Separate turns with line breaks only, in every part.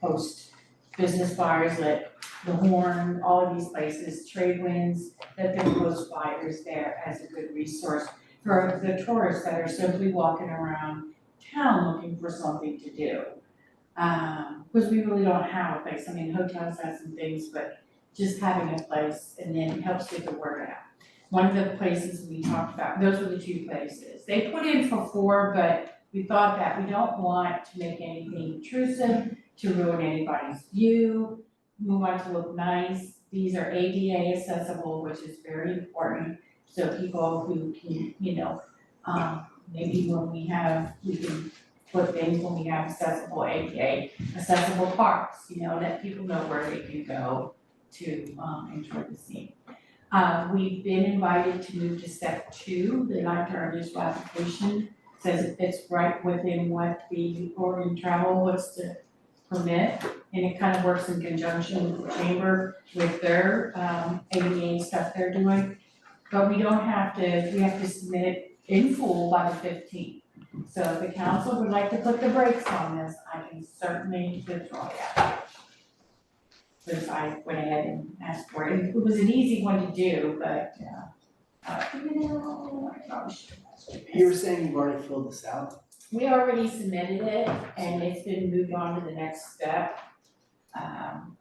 post business bars like the Horn, all of these places, Trade Winds, that they post flyers there as a good resource for the tourists that are simply walking around town looking for something to do. Um, cause we really don't have a place, I mean, hotels have some things, but just having a place and then helps get the word out. One of the places we talked about, those were the two places, they put in for four, but we thought that we don't want to make anything intrusive, to ruin anybody's view, we want to look nice, these are ADA accessible, which is very important. So people who can, you know, um, maybe when we have, we can put things when we have accessible ADA, accessible parks, you know, let people know where they can go to, um, enjoy the scene. Uh, we've been invited to move to step two, the life our initial application, says it fits right within what the Oregon Travel was to permit, and it kind of works in conjunction with the chamber with their, um, ADA stuff they're doing. But we don't have to, we have to submit it in full by the fifteenth. So if the council would like to put the brakes on this, I can certainly withdraw that. Since I went ahead and asked for it, it was an easy one to do, but, uh, uh, you know, I probably should have asked for
You were
this.
saying you've already filled this out?
We already submitted it and it's been moved on to the next step. Um,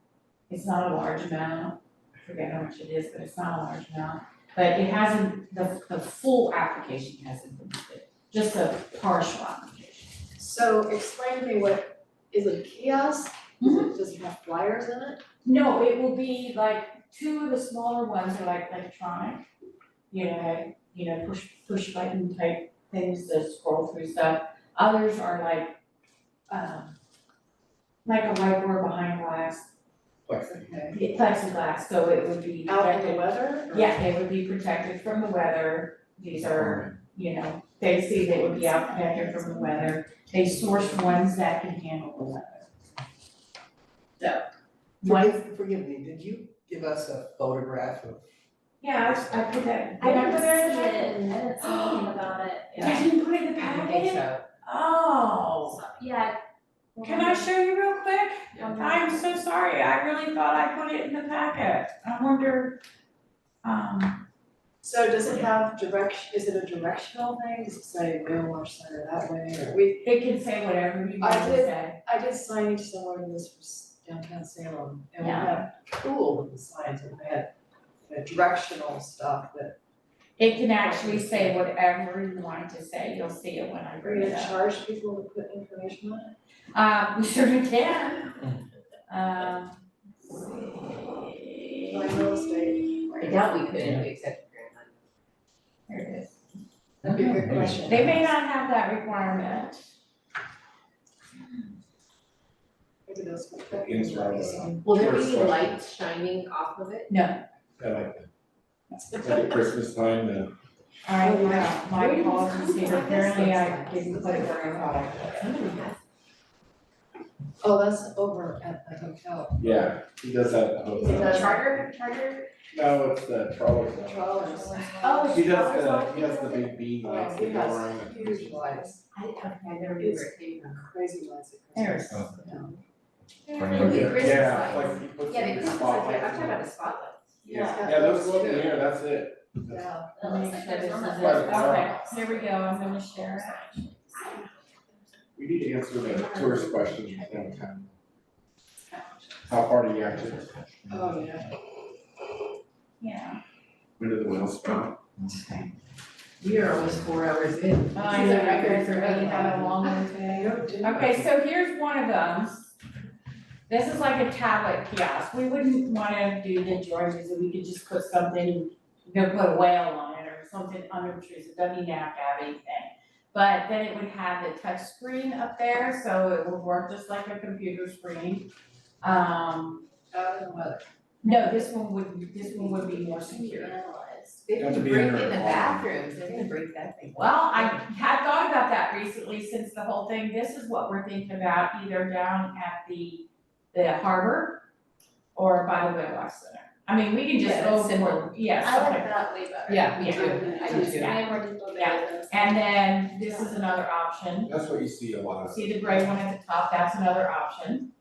it's not a large amount, I forget how much it is, but it's not a large amount. But it hasn't, the, the full application hasn't been submitted, just a partial application.
So explain to me what, is it a kiosk? Does it, does it have flyers in it?
No, it will be like, two of the smaller ones are like electronic, you know, like, you know, push, push button type things that scroll through stuff. Others are like, um, like a whiteboard behind glass,
Okay.
It plexiglass, so it would be
Out in the
protected.
weather? or-
Yeah, it would be protected from the weather, these are, you know, they see they would be out protected from the weather, they source ones that can handle the weather. So, one,
Forgive, forgive me, did you give us a photograph of?
yeah, I, I put that,
I
did I
didn't
put
see
that in the packet?
it, I didn't see anything about it.
I didn't put it in
I
the packet?
don't think
Oh,
So, Yeah.
can I show you real quick? I'm so sorry, I really thought I put it in the packet, I wonder, um,
So does it have direction, is it a directional thing? Does it say rail or center that way? Or We,
it can say whatever you want
I
to say.
did- I did signage somewhere in this was downtown Salem and we
Yeah.
had cool with the signs and they had you know, directional stuff that.
It can actually say whatever you want to say, you'll see it when I
Are
bring
you
it
gonna
up.
charge people to put information on it?
Uh, we certainly can. Um. let's see.
Mm. Like real estate.
I doubt we could, if we accepted grant money.
There it is.
That'd be a good question.
They may not have that requirement.
Maybe those.
Against my, uh,
Will there be
Sure,
any
sure.
lights shining off of it?
I like that, like at Christmas time, uh,
I, uh, my
Where did this
apologies,
come from?
apparently
This
I
looks like-
didn't put it where I thought I put it.
Somebody has
Oh, that's over at the hotel.
yeah, he does that at the
He
hotel.
does-
The charter, charter,
No, it's the trawler club.
Controllers.
Oh,
He does the, he has the big bean lights
He
that go
has
around.
huge lights,
I didn't, okay, I never knew where it came from.
crazy lights. at
There it
Christmas.
is.
Or the Christmas
Yeah,
lights.
like he puts
Yeah, the
the
Christmas lights, I'm
spotlights
talking
on
about
it.
the spotlight.
Yeah, yeah, those go up in the air, that's it. That's-
Yeah.
That looks
Make
like
sure
there's one
this
of
is
Right,
it.
it's
those.
on.
Okay, here we go, I'm gonna share it.
We need to answer the tourist question downtown. How far do you actually,
Oh, yeah,
Yeah.
when do the wheels come?
We are almost four hours in.
I know, record for me, how long it
I
today.
don't do.
Okay, so here's one of them. This is like a tablet kiosk, we wouldn't wanna do the Georges, and we could just put something, you know, put a whale on it or something unobtrusive, doesn't even have to have anything. But then it would have the touch screen up there, so it would work just like a computer screen. Um,
Out in the weather.
no, this one would, this one would be more secure.
Analysts. They
You have
can
to be
break in
under
the
a bomb.
bathrooms, they're gonna break that thing.
Well, I had thought about that recently since the whole thing, this is what we're thinking about either down at the, the harbor or by the Whitlock Center. I mean, we can just
Yeah,
go
that's
for,
simple.
yeah,
I like
something.
that way better.
Yeah, me
Yeah.
too, I do too.
I am already building those.
And then this is another option,
That's what you see a lot of.
see the gray one at the top, that's another option.